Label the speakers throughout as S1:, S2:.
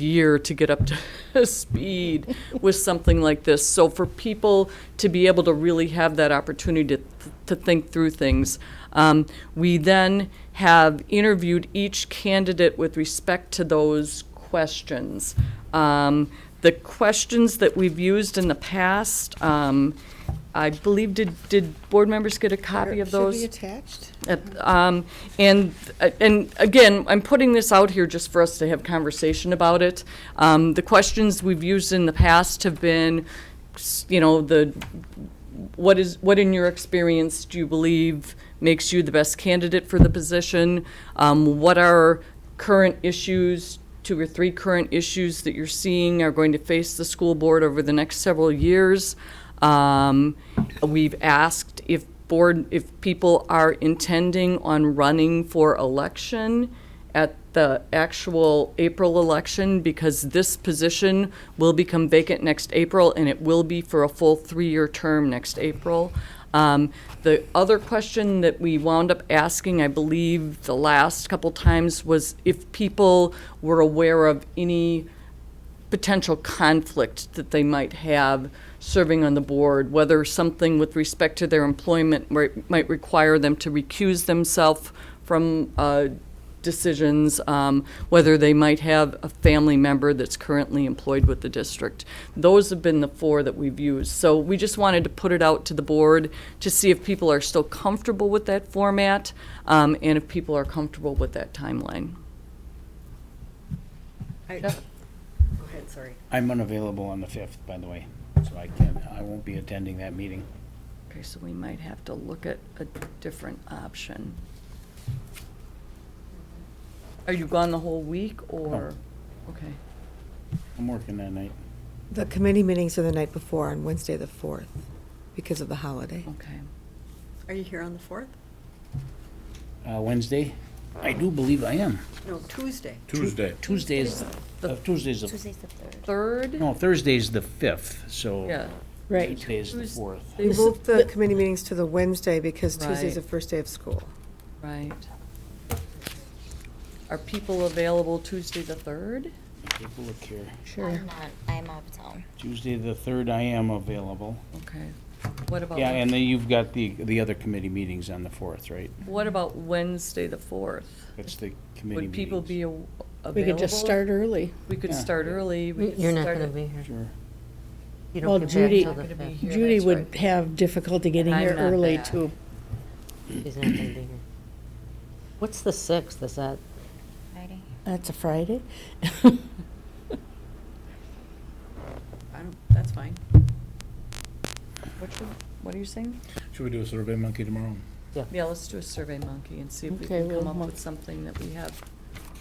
S1: year to get up to speed with something like this. So for people to be able to really have that opportunity to, to think through things, um, we then have interviewed each candidate with respect to those questions. Um, the questions that we've used in the past, um, I believe, did, did board members get a copy of those?
S2: Should be attached?
S1: At- um, And, uh, and again, I'm putting this out here just for us to have conversation about it. Um, The questions we've used in the past have been, s- you know, the, what is, what in your experience do you believe makes you the best candidate for the position? Um, What are current issues, two or three current issues that you're seeing are going to face the school board over the next several years? Um, We've asked if board, if people are intending on running for election at the actual April election, because this position will become vacant next April, and it will be for a full three-year term next April. Um, The other question that we wound up asking, I believe, the last couple times, was if people were aware of any potential conflict that they might have serving on the board, whether something with respect to their employment mi- might require them to recuse themselves from uh, decisions, um, whether they might have a family member that's currently employed with the district. Those have been the four that we've used. So we just wanted to put it out to the board to see if people are still comfortable with that format um, and if people are comfortable with that timeline.
S2: I- Go ahead, sorry.
S3: I'm unavailable on the 5th, by the way, so I can't, I won't be attending that meeting.
S1: Okay, so we might have to look at a different option. Are you gone the whole week, or? Okay.
S3: I'm working that night.
S4: The committee meetings are the night before on Wednesday, the 4th, because of the holiday.
S1: Okay.
S2: Are you here on the 4th?
S3: Uh, Wednesday? I do believe I am.
S2: No, Tuesday.
S5: Tuesday.
S3: Tuesday is, uh, Tuesday's, the-
S6: Tuesday's the third.
S1: Third?
S3: no, Thursday's the 5th, so.
S1: Yeah.
S3: Tuesday is the
S1: Tues-
S3: 4th.
S4: They moved the committee meetings to the Wednesday because
S1: Right.
S4: Tuesday's the first day of school.
S1: Right. Are people available Tuesday the third?
S3: Take a look here.
S6: I'm not, I'm out of town.
S3: Tuesday, the 3rd, I am available.
S1: Okay. What about,
S3: Yeah, and then you've got the, the other committee meetings on the 4th, right?
S1: what about Wednesday the fourth?
S3: That's the committee
S1: Would
S3: meetings.
S1: people be a- available?
S7: We could just start early.
S1: We could
S3: Yeah.
S1: start early. we could
S8: You're not
S1: start
S8: gonna
S1: at-
S8: be here.
S3: Sure.
S8: You
S7: Well,
S8: don't get back
S7: Judy-
S8: till the
S1: Not gonna be
S8: fifth.
S1: here,
S7: Judy
S1: that's
S7: would
S1: right.
S7: have difficulty getting
S1: I'm
S7: here
S1: not
S7: early
S1: back.
S7: too.
S8: She's not gonna be here. What's the sixth? Is that,
S6: Friday.
S7: That's a Friday?
S2: I don't, that's fine.
S1: What you- What are you saying?
S5: Should we do a survey monkey tomorrow?
S1: Yeah, let's do a Survey Monkey and see if we
S7: Okay,
S1: can come
S7: we'll
S1: up
S7: mon-
S1: with something that we have.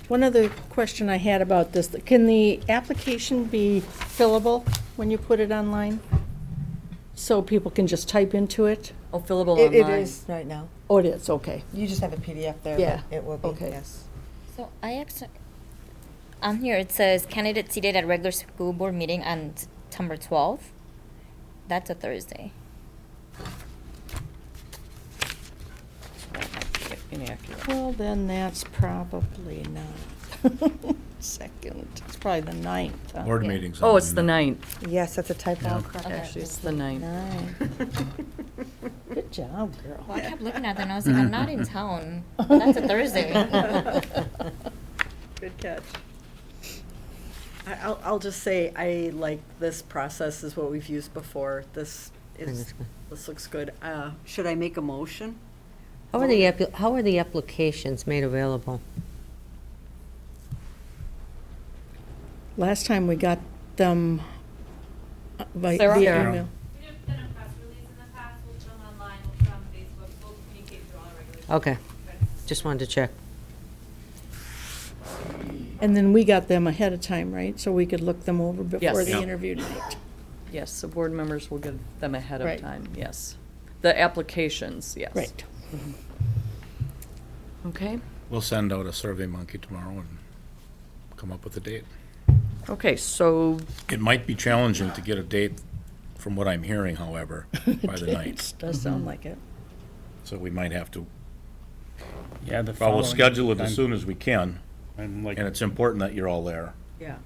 S7: One other question I had about this, can the application be fillable when you put it online? So people can just type into it?
S1: Oh, fillable
S4: It
S1: online.
S4: it is right now.
S7: Oh, it is, okay.
S4: You just have a PDF there,
S7: Yeah,
S4: but it will be,
S7: okay.
S4: yes.
S6: So I actually, on here it says candidate seated at regular school board meeting on September twelfth. That's a Thursday.
S1: Inaccurate.
S7: Well, then that's probably not. Second, it's probably the ninth. huh?
S5: Board meetings.
S1: Oh, it's the ninth.
S4: Yes, that's a typo.
S1: Actually, it's the ninth.
S7: Nine. Good job, girl.
S6: Well, I kept looking at that and I was like, I'm not in town. That's a Thursday.
S2: Good catch. I- I'll, I'll just say, I like this process, is what we've used before. This is, this looks good. Uh, Should I make a motion?
S8: how are the, appli- how are the applications made available?
S7: Last time we got them uh, by
S1: Sarah?
S7: via
S1: Sarah.
S7: email.
S9: We have done a press release in the past, we'll put them online, we'll put them on Facebook, we'll communicate through all our regular.
S8: Okay, just wanted to check.
S7: And then we got them ahead of time, right? So we could look them over before
S1: Yes.
S7: the
S1: Yeah.
S7: interview night.
S1: Yes, so board members will get them ahead of
S7: Right.
S1: time, yes. The applications, yes.
S7: Right.
S1: Okay.
S5: We'll send out a survey monkey tomorrow and come up with a date.
S1: Okay, so
S5: It might be challenging to get a date, from what I'm hearing, however, by the night.
S7: It does
S1: Mhm.
S7: sound like it.
S5: So we might have to,
S3: Yeah, the
S5: well, we'll
S3: following-
S5: schedule it
S3: I'm-
S5: as soon as we can,
S3: I'm like,
S5: and it's important that you're all there.
S2: Yeah.